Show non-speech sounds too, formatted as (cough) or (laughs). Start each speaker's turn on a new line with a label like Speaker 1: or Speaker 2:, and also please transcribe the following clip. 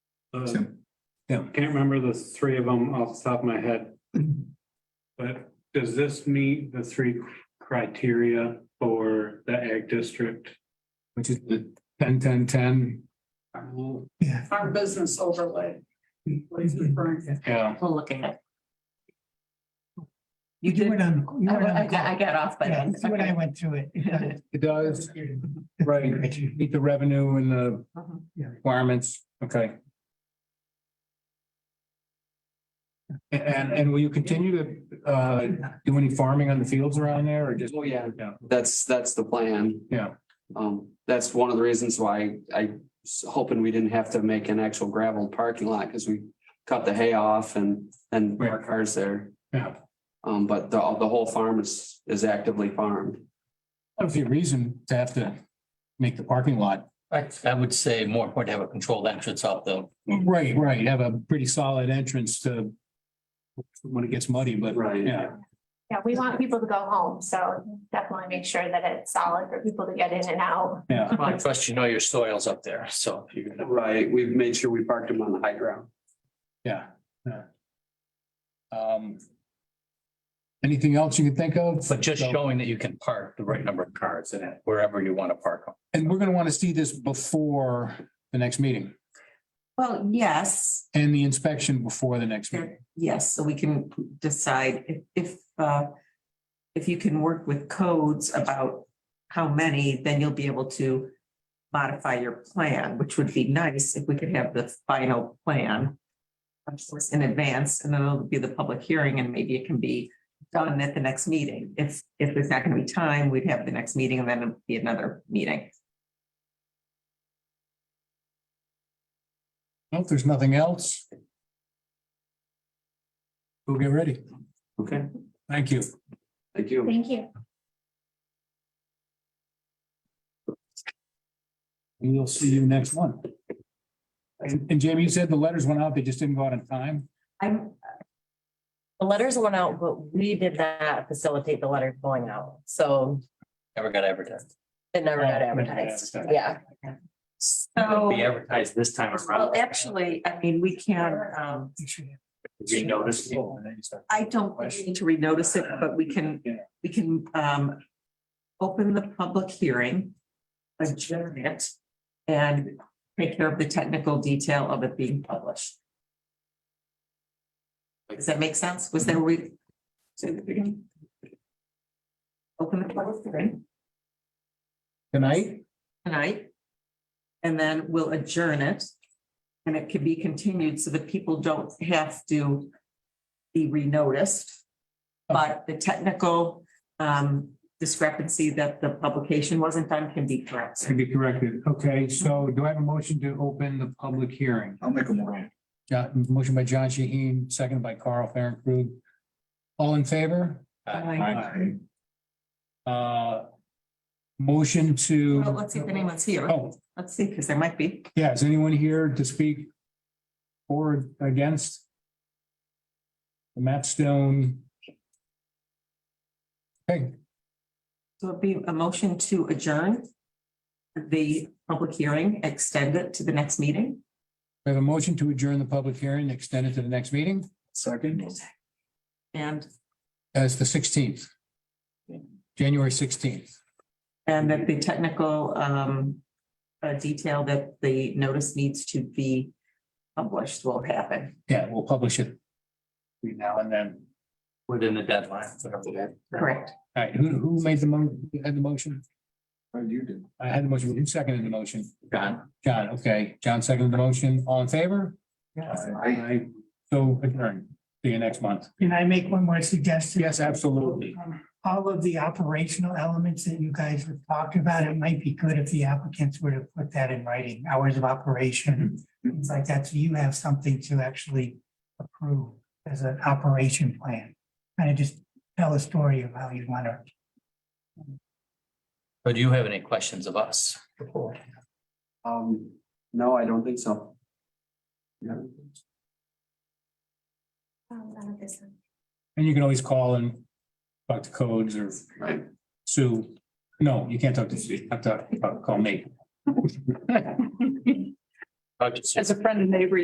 Speaker 1: Uh,
Speaker 2: So- yeah.
Speaker 1: Can't remember the three of them off the top of my head. But does this meet the three criteria for the ag district?
Speaker 2: which is the ten, ten, ten. Yeah.
Speaker 3: farm business overlay. What he's referring to.
Speaker 1: Yeah,
Speaker 4: We'll look at it.
Speaker 5: You
Speaker 4: did-
Speaker 5: went on. you
Speaker 4: I
Speaker 5: went on
Speaker 4: I
Speaker 5: the
Speaker 4: got, I
Speaker 5: call.
Speaker 4: got off by
Speaker 5: Yeah,
Speaker 4: then.
Speaker 5: you and I went through
Speaker 4: (laughs)
Speaker 5: it. It
Speaker 2: It does,
Speaker 5: does.
Speaker 2: right, meet the revenue and the
Speaker 4: Mhm.
Speaker 2: requirements, okay. A- And, and will you continue to, uh, do any farming on the fields around there or just?
Speaker 6: Oh, yeah.
Speaker 2: Yeah,
Speaker 6: That's, that's the plan.
Speaker 2: Yeah.
Speaker 6: Um, that's one of the reasons why I was hoping we didn't have to make an actual gravel parking lot because we cut the hay off and, and
Speaker 2: Right.
Speaker 6: park cars there.
Speaker 2: yeah.
Speaker 6: Um, but the, the whole farm is, is actively farmed.
Speaker 2: Obviously a reason to have to make the parking lot.
Speaker 7: I, I would say more important to have a controlled entrance off the,
Speaker 2: Right, right, have a pretty solid entrance to when it gets muddy, but
Speaker 6: Right.
Speaker 2: yeah.
Speaker 8: Yeah, we want people to go home, so definitely make sure that it's solid for people to get in and out.
Speaker 2: Yeah,
Speaker 7: I trust you know your soils up there, so if you're gonna.
Speaker 6: Right, we've made sure we parked them on the high ground.
Speaker 2: yeah, yeah. Um. Anything else you can think of?
Speaker 7: But just
Speaker 2: So-
Speaker 7: showing that you can park the right number of cars in it, wherever you want to park them.
Speaker 2: And we're gonna wanna see this before the next meeting
Speaker 4: Well, yes,
Speaker 2: and the inspection before the next meeting.
Speaker 4: there- yes, so we can decide if, if, uh, if you can work with codes about how many, then you'll be able to modify your plan, which would be nice if we could have the final plan of course, in advance, and then it'll be the public hearing, and maybe it can be done at the next meeting. If, if there's not gonna be time, we'd have the next meeting, and then it'd be another meeting.
Speaker 2: Well, if there's nothing else. We'll get ready.
Speaker 6: Okay,
Speaker 2: Thank you.
Speaker 6: thank you.
Speaker 8: Thank you.
Speaker 2: We'll see you next one. And and Jamie, you said the letters went out, they just didn't go out in time?
Speaker 9: I'm. The letters went out, but we did not facilitate the letter going out, so
Speaker 7: Never got advertised.
Speaker 9: it never got
Speaker 2: Oh, never got
Speaker 9: advertised,
Speaker 2: advertised.
Speaker 9: yeah.
Speaker 4: So.
Speaker 7: Be advertised this time
Speaker 4: Well,
Speaker 7: around.
Speaker 4: actually, I mean, we can, um,
Speaker 7: You notice.
Speaker 4: I don't need to renotice it, but we can,
Speaker 2: Yeah.
Speaker 4: we can, um, open the public hearing, adjourn it, and take care of the technical detail of it being published. Does that make sense? Was there, we, say the beginning? Open the public hearing
Speaker 2: Tonight?
Speaker 4: tonight, and then we'll adjourn it. And it can be continued so that people don't have to be renoticed. But the technical um discrepancy that the publication wasn't done can be corrected.
Speaker 2: Can be corrected. Okay, so do I have a motion to open the public hearing?
Speaker 5: I'll make a motion.
Speaker 2: John, motion by John Shaheen, seconded by Carl Fahrenkrug. All in favor? Aye. Uh. Motion to.
Speaker 4: Well, let's see if anyone's here.
Speaker 2: Oh,
Speaker 4: Let's see, because there might be.
Speaker 2: yeah, is anyone here to speak? Or against? The Matt Stone. Okay,
Speaker 4: So it'd be a motion to adjourn the public hearing, extend it to the next meeting.
Speaker 2: we have a motion to adjourn the public hearing, extend it to the next meeting.
Speaker 5: Second.
Speaker 4: And
Speaker 2: That's the sixteenth. January sixteenth.
Speaker 4: And that the technical um uh detail that the notice needs to be published will happen.
Speaker 2: Yeah, we'll publish it. Between now and then.
Speaker 7: Within the deadline. whatever that-
Speaker 4: Correct.
Speaker 2: All right, who, who made the mo, who had the motion?
Speaker 5: You did.
Speaker 2: I had the motion, who seconded the motion?
Speaker 7: John.
Speaker 2: John, okay, John seconded the motion, all in favor? Aye. So adjourn, see you next month.
Speaker 5: Can I make one more suggestion?
Speaker 2: Yes, absolutely.
Speaker 5: Um, All of the operational elements that you guys have talked about, it might be good if the applicants were to put that in writing, hours of operation, things like that, so you have something to actually approve as an operation plan. Kind of just tell a story of how you want to
Speaker 7: Or do you have any questions of us?
Speaker 6: Um, no, I don't think so. Yeah.
Speaker 8: Um, none of this one.
Speaker 2: And you can always call and talk to codes or
Speaker 6: Right.
Speaker 2: Sue. No, you can't talk to Sue, you have to uh, call me.
Speaker 7: I'll just-
Speaker 3: As a friend and neighbor,